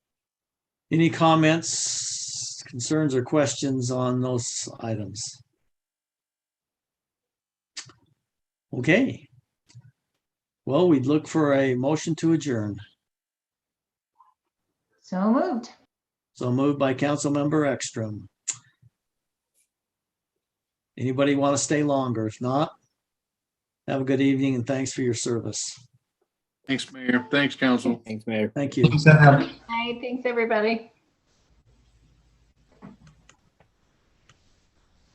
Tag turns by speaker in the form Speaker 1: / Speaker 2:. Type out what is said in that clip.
Speaker 1: Any comments, concerns, or questions on those items? Okay. Well, we'd look for a motion to adjourn.
Speaker 2: So moved.
Speaker 1: So moved by Councilmember Ekstrom. Anybody want to stay longer? If not, have a good evening and thanks for your service.
Speaker 3: Thanks, Mayor. Thanks, Council.
Speaker 4: Thanks, Mayor.
Speaker 1: Thank you.
Speaker 2: Hi, thanks, everybody.